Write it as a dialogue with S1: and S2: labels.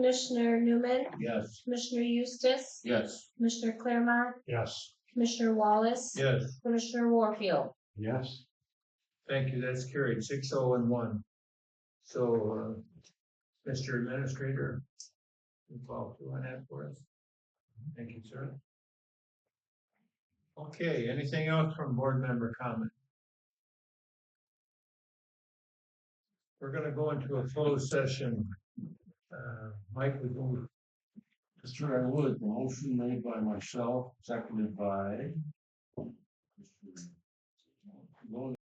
S1: Commissioner Newman,
S2: Yes.
S1: Commissioner Eustace,
S2: Yes.
S1: Commissioner Claremont,
S2: Yes.
S1: Commissioner Wallace,
S2: Yes.
S1: Commissioner Warfield.
S2: Yes. Thank you, that's carried, six oh and one. So, uh, Mr. Administrator, you follow through on that for us? Thank you, sir. Okay, anything else from board member comment? We're gonna go into a closed session. Uh, Mike, we move.
S3: Mr. I would, the motion made by myself, seconded by. Mr. Logan.